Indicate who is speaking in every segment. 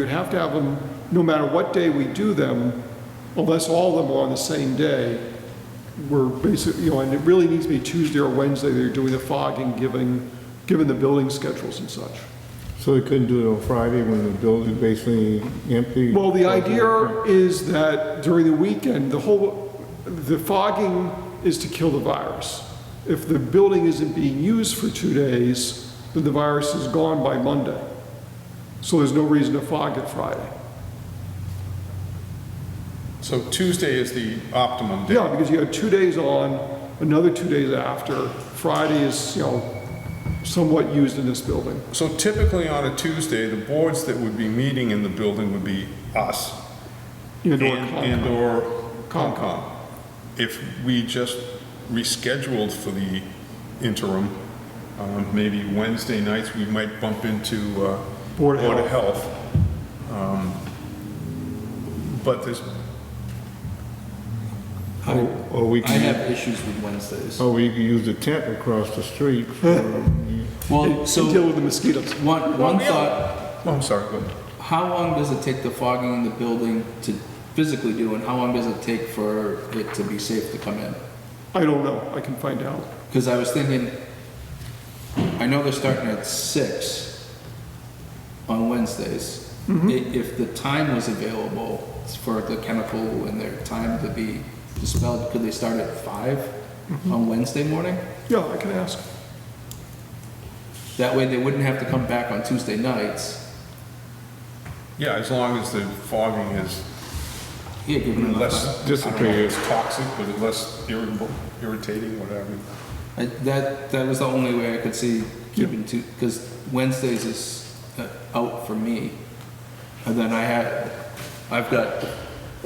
Speaker 1: You'd have to have them, no matter what day we do them, unless all of them are on the same day, we're basically, you know, and it really needs to be Tuesday or Wednesday, they're doing the fogging, giving, given the building schedules and such.
Speaker 2: So we couldn't do it on Friday when the building's basically empty?
Speaker 1: Well, the idea is that during the weekend, the whole, the fogging is to kill the virus. If the building isn't being used for two days, then the virus is gone by Monday. So there's no reason to fog it Friday.
Speaker 3: So Tuesday is the optimum day?
Speaker 1: Yeah, because you have two days on, another two days after. Friday is, you know, somewhat used in this building.
Speaker 3: So typically on a Tuesday, the boards that would be meeting in the building would be us and
Speaker 1: And or
Speaker 3: and
Speaker 1: Concom.
Speaker 3: or
Speaker 1: Concom.
Speaker 3: Concom. If we just rescheduled for the interim, um, maybe Wednesday nights, we might bump into uh,
Speaker 1: Board of
Speaker 3: Board of Health. Um, But there's,
Speaker 2: Or or we
Speaker 4: I
Speaker 2: could,
Speaker 4: have issues with
Speaker 3: Oh.
Speaker 4: Wednesdays.
Speaker 2: or we could use the tent across the street for, um,
Speaker 4: Well,
Speaker 1: And deal
Speaker 4: so
Speaker 1: with the mosquitoes.
Speaker 4: one, one thought,
Speaker 3: oh, I'm sorry, go ahead.
Speaker 4: how long does it take the fogging in the building to physically do and how long does it take for it to be safe to come in?
Speaker 1: I don't know, I can find out.
Speaker 4: Because I was thinking, I know they're starting at six on Wednesdays. I- If the time was available for the chemical and their time to be dispelled, could they start at five on Wednesday morning?
Speaker 1: Yeah, I can ask.
Speaker 4: That way they wouldn't have to come back on Tuesday nights.
Speaker 3: Yeah, as long as the fogging is
Speaker 4: Yeah, given enough time.
Speaker 3: less,
Speaker 2: Disappear.
Speaker 3: it's toxic, but it's less irritable, irritating, whatever.
Speaker 4: I, that that was the only way I could see keeping two because Wednesdays is uh, out for me, and then I had I've got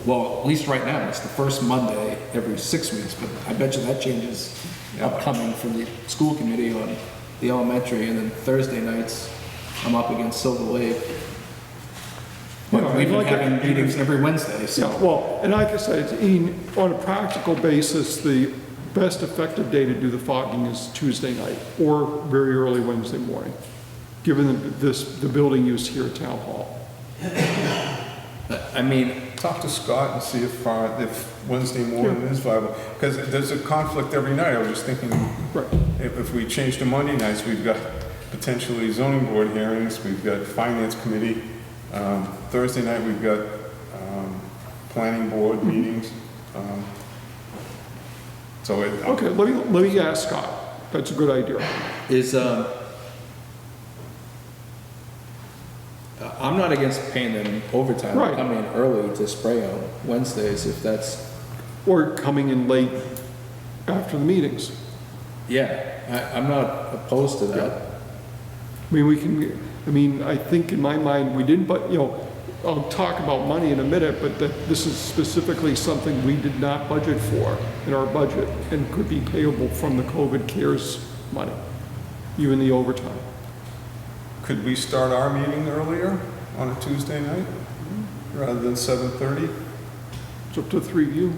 Speaker 4: well at least right now it's the first Monday every six weeks, but I bet you that changes upcoming from the school committee on the elementary, and then Thursday nights I'm up against Silver Lake. But
Speaker 1: Yeah,
Speaker 4: we've
Speaker 1: I'd
Speaker 4: been
Speaker 1: like to-
Speaker 4: having meetings every Wednesday, so
Speaker 1: Yeah, well, and like I said, Ian, on a practical basis, the best effective day to do the fogging is Tuesday night or very early Wednesday morning, given the- this, the building use here at Town Hall.
Speaker 4: I- I mean
Speaker 3: Talk to Scott and see if, uh, if Wednesday morning is viable, because there's a conflict every night, I was just thinking,
Speaker 1: Right.
Speaker 3: if, if we change to Monday nights, we've got potentially zoning board hearings, we've got finance committee, um, Thursday night, we've got, um, planning board
Speaker 1: Mm-hmm.
Speaker 3: meetings, um, so it.
Speaker 1: Okay, let me, let me ask Scott. That's a good idea.
Speaker 4: is, um, uh, I'm not against paying them overtime,
Speaker 1: Right.
Speaker 4: coming in early to spray on Wednesdays if that's,
Speaker 1: Or coming in late after the meetings.
Speaker 4: yeah, I, I'm not opposed to that.
Speaker 1: I mean, we can, I mean, I think in my mind, we didn't, but, you know, I'll talk about money in a minute, but that this is specifically something we did not budget for in our budget and could be payable from the COVID cares money, even the overtime.
Speaker 3: Could we start our meeting earlier on a Tuesday night, rather than seven thirty?
Speaker 1: It's up to the three of you.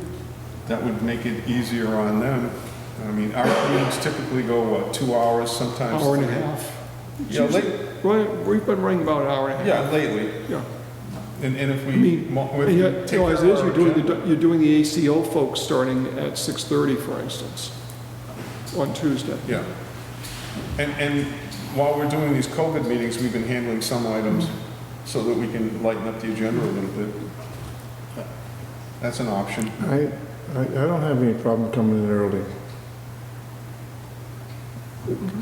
Speaker 3: That would make it easier on them. I mean, our meetings typically go, what, two hours, sometimes?
Speaker 1: Hour and a
Speaker 3: three?
Speaker 1: half.
Speaker 3: Yeah, late,
Speaker 1: Right, We've been running about an hour and a half.
Speaker 3: yeah, lately.
Speaker 1: Yeah.
Speaker 3: And, and if
Speaker 1: I
Speaker 3: we,
Speaker 1: mean,
Speaker 3: mo- if
Speaker 1: and
Speaker 3: we
Speaker 1: yet, you
Speaker 3: take
Speaker 1: know, as it is,
Speaker 3: our
Speaker 1: you're doing,
Speaker 3: agenda-
Speaker 1: the you're doing the ACO folks starting at 6:30, for instance, on Tuesday.
Speaker 3: Yeah. And, and while we're doing these COVID meetings, we've been handling some items so that we can lighten up the agenda a little bit. That's an option.
Speaker 2: I, I I don't have any problem coming in early.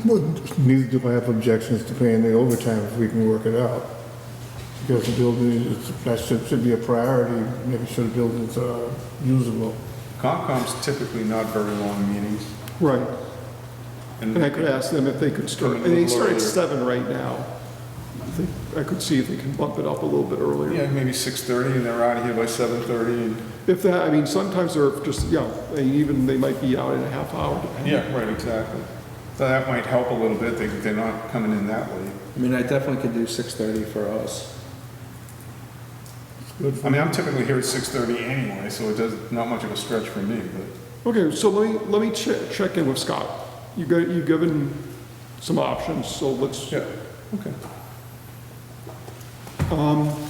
Speaker 2: Well, Neither do I have objections to paying the overtime if we can work it out. Because the building, is- that should, should be a priority, making sure the building's uh, usable.
Speaker 3: Concom's typically not very long meetings.
Speaker 1: Right.
Speaker 3: and
Speaker 1: And I could ask them if they could start, and they start at seven right now. I think- I could see if they can bump it up a little bit earlier.
Speaker 3: Yeah, maybe 6:30 and they're out of here by 7:30 and.
Speaker 1: If that, I mean, sometimes they're just, yeah, they even, they might be out in a half hour. depending.
Speaker 3: Yeah, right, exactly. So that might help a little bit, they, they're not coming in that way.
Speaker 4: I mean, I definitely could do six thirty for us.
Speaker 2: Good for
Speaker 3: I mean, I'm typically here at 6:30 anyway, so it does, not much of a stretch for me, but,
Speaker 1: Okay, so let me, let me check, check in with Scott. You go, you've given some options, so let's,
Speaker 3: yeah, okay.
Speaker 1: um,